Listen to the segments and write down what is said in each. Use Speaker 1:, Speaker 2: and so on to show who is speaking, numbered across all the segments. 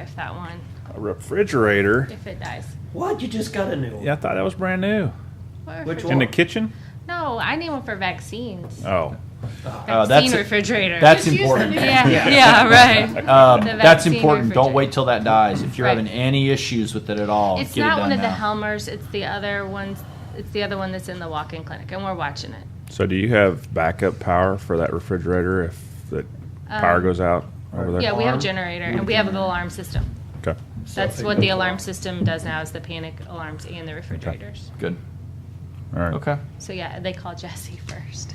Speaker 1: with that one
Speaker 2: A refrigerator.
Speaker 1: if it dies.
Speaker 3: What? You just got a new one?
Speaker 2: Yeah, I thought that was brand new.
Speaker 1: What
Speaker 3: Which
Speaker 1: refrigerator?
Speaker 2: In the
Speaker 3: one?
Speaker 2: kitchen?
Speaker 1: No, I need one for vaccines.
Speaker 2: Oh.
Speaker 1: Vaccine
Speaker 4: Uh, that's-
Speaker 1: refrigerator.
Speaker 4: That's
Speaker 5: Just use the
Speaker 4: important.
Speaker 5: new-
Speaker 1: yeah, yeah, right.
Speaker 4: Um,
Speaker 1: The
Speaker 4: that's
Speaker 1: vaccine
Speaker 4: important. Don't
Speaker 1: refrigerator.
Speaker 4: wait till that dies. If you're
Speaker 1: Right.
Speaker 4: having any issues with it at all,
Speaker 1: It's
Speaker 4: get it
Speaker 1: not
Speaker 4: done
Speaker 1: one of the
Speaker 4: now.
Speaker 1: Helmers. It's the other ones. It's the other one that's in the walk-in clinic, and we're watching it.
Speaker 2: So do you have backup power for that refrigerator if the power
Speaker 1: Um,
Speaker 2: goes out over there?
Speaker 1: Yeah, we have a
Speaker 3: Alarm?
Speaker 1: generator, and we have the alarm system.
Speaker 2: Okay.
Speaker 1: That's what the alarm system does now is the panic alarms and the refrigerators.
Speaker 4: Good.
Speaker 2: All right.
Speaker 4: Okay.
Speaker 1: So yeah, they call Jesse first.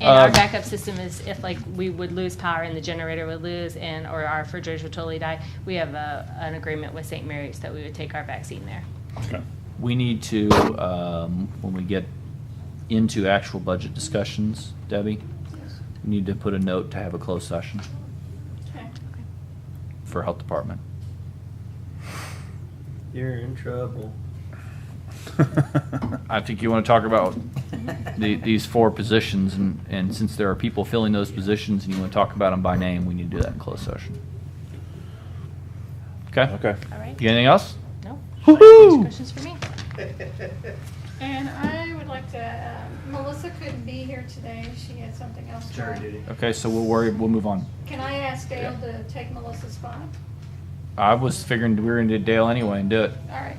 Speaker 1: And our
Speaker 4: Um,
Speaker 1: backup system is if like we would lose power and the generator would lose and or our refrigerators would totally die, we have a, an agreement with St. Mary's that we would take our vaccine there.
Speaker 2: Okay.
Speaker 4: We need to, um, when we get into actual budget discussions, Debbie, we need to put a note to have a closed session for health department.
Speaker 3: You're in trouble.
Speaker 4: I think you want to talk about the, these four positions, and, and since there are people filling those positions, and you want to talk about them by name, we need to do that in closed session. Okay?
Speaker 2: Okay.
Speaker 1: All right?
Speaker 4: You got anything else?
Speaker 1: No? Any Questions for me?
Speaker 5: And I would like to, um, Melissa couldn't be here today, she had something else
Speaker 3: It's her
Speaker 5: going.
Speaker 3: duty.
Speaker 4: Okay, so we'll worry, we'll move on.
Speaker 5: Can I ask Dale
Speaker 4: Yeah.
Speaker 5: to take Melissa's spot?
Speaker 4: I was figuring we were gonna do Dale anyway and do it.
Speaker 5: All right.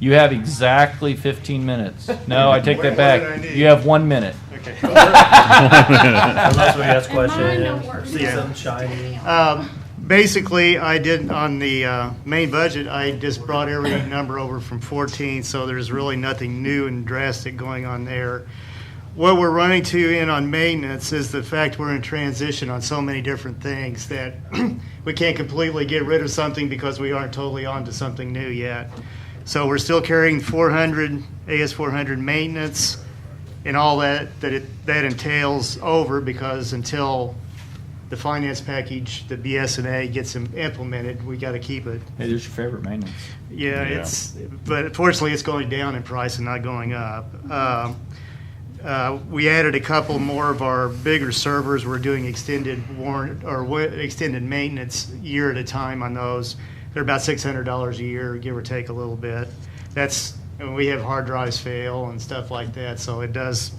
Speaker 4: You have exactly fifteen minutes. No, I take that
Speaker 6: Way more than I
Speaker 4: back.
Speaker 6: need.
Speaker 4: You have one minute.
Speaker 6: Okay.
Speaker 3: Unless we ask
Speaker 5: And mine don't work.
Speaker 3: questions, see
Speaker 6: Yeah.
Speaker 3: something shiny.
Speaker 6: Um, Basically, I did, on the uh, main budget, I just brought every number over from 14, so there's really nothing new and drastic going on there. What we're running to in on maintenance is the fact we're in transition on so many different things that we can't completely get rid of something because we aren't totally on to something new yet. So we're still carrying 400, AS 400 maintenance and all that, that it, that entails over because until the finance package, the BSNA gets im- implemented, we got to keep it.
Speaker 4: Hey, there's your favorite maintenance.
Speaker 6: Yeah, it's, but fortunately, it's going down in price and not going up. Um, uh, We added a couple more of our bigger servers. We're doing extended warrant, or wa- extended maintenance year at a time on those. They're about $600 a year, give or take a little bit. That's, and we have hard drives fail and stuff like that, so it does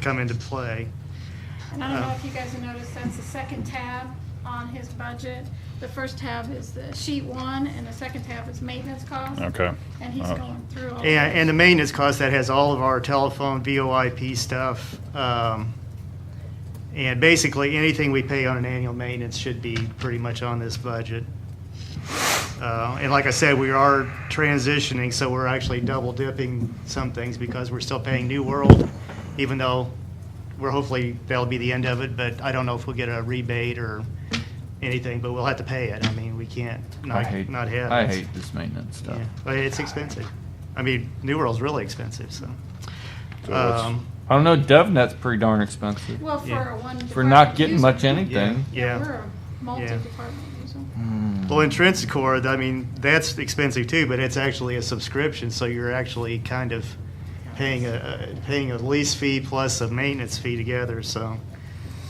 Speaker 6: come into play.
Speaker 5: And I don't know
Speaker 6: Uh,
Speaker 5: if you guys have noticed, that's the second tab on his budget. The first tab is the sheet one, and the second tab is maintenance costs.
Speaker 2: Okay.
Speaker 5: And he's
Speaker 6: Oh.
Speaker 2: Uh,
Speaker 5: going through all.
Speaker 6: And,
Speaker 5: that.
Speaker 6: and the maintenance cost, that has all of our telephone, VoIP stuff. um, And basically, anything we pay on an annual maintenance should be pretty much on this budget. Uh, And like I said, we are transitioning, so we're actually double dipping some things because we're still paying New World, even though we're hopefully, that'll be the end of it, but I don't know if we'll get a rebate or anything, but we'll have to pay it. I mean, we can't
Speaker 4: I
Speaker 6: not,
Speaker 4: hate,
Speaker 6: not have.
Speaker 4: I
Speaker 6: it.
Speaker 4: hate this maintenance stuff.
Speaker 6: Yeah, but it's expensive. I mean, New World's really expensive, so.
Speaker 2: So it's-
Speaker 6: Um,
Speaker 4: I don't know, DevNet's pretty darn expensive.
Speaker 5: Well, for
Speaker 6: yeah.
Speaker 5: a one.
Speaker 4: If We're not
Speaker 5: department
Speaker 4: getting
Speaker 5: user-
Speaker 4: much anything.
Speaker 6: Yeah.
Speaker 5: We're a multi-department user.
Speaker 6: well, Intrinsicore, I mean, that's expensive too, but it's actually a subscription, so you're actually kind of paying a, a- paying a lease fee plus a maintenance fee together, so.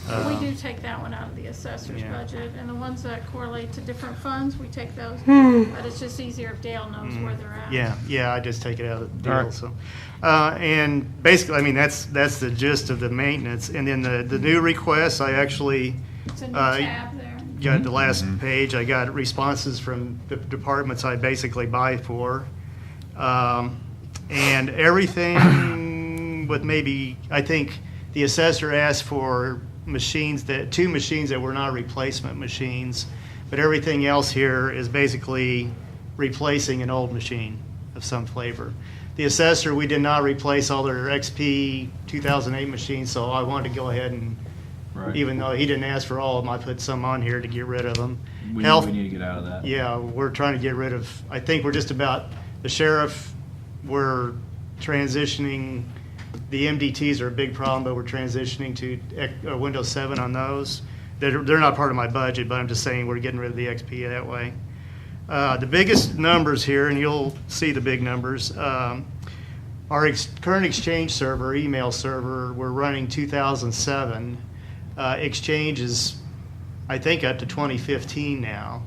Speaker 5: We
Speaker 6: um,
Speaker 5: do take that one out of the assessor's
Speaker 6: Yeah.
Speaker 5: budget, and the ones that correlate to different funds, we take those. But it's just easier if Dale knows where they're at.
Speaker 6: Hmm. Yeah, yeah, I just take it out of the
Speaker 4: All
Speaker 6: deal,
Speaker 4: right.
Speaker 6: so. Uh, and basically, I mean, that's, that's the gist of the maintenance. And then the, the new requests, I actually,
Speaker 5: It's a new
Speaker 6: Uh,
Speaker 5: tab there.
Speaker 6: got the last page, I got responses from the departments I basically buy for. Um, And everything with maybe, I think the assessor asked for machines that, two machines that were not replacement machines, but everything else here is basically replacing an old machine of some flavor. The assessor, we did not replace all their XP 2008 machines, so I wanted to go ahead and even though he didn't ask for all of them, I put some on here to get rid of them.
Speaker 4: We,
Speaker 6: Health,
Speaker 4: we need to get out of that.
Speaker 6: yeah, we're trying to get rid of, I think we're just about, the sheriff, we're transitioning, the MDTs are a big problem, but we're transitioning to ec- uh, Windows 7 on those. They're, they're not part of my budget, but I'm just saying we're getting rid of the XP that way. Uh, The biggest numbers here, and you'll see the big numbers, um, our ex- current Exchange server, email server, we're running 2007. Uh, Exchange is, I think, up to 2015 now.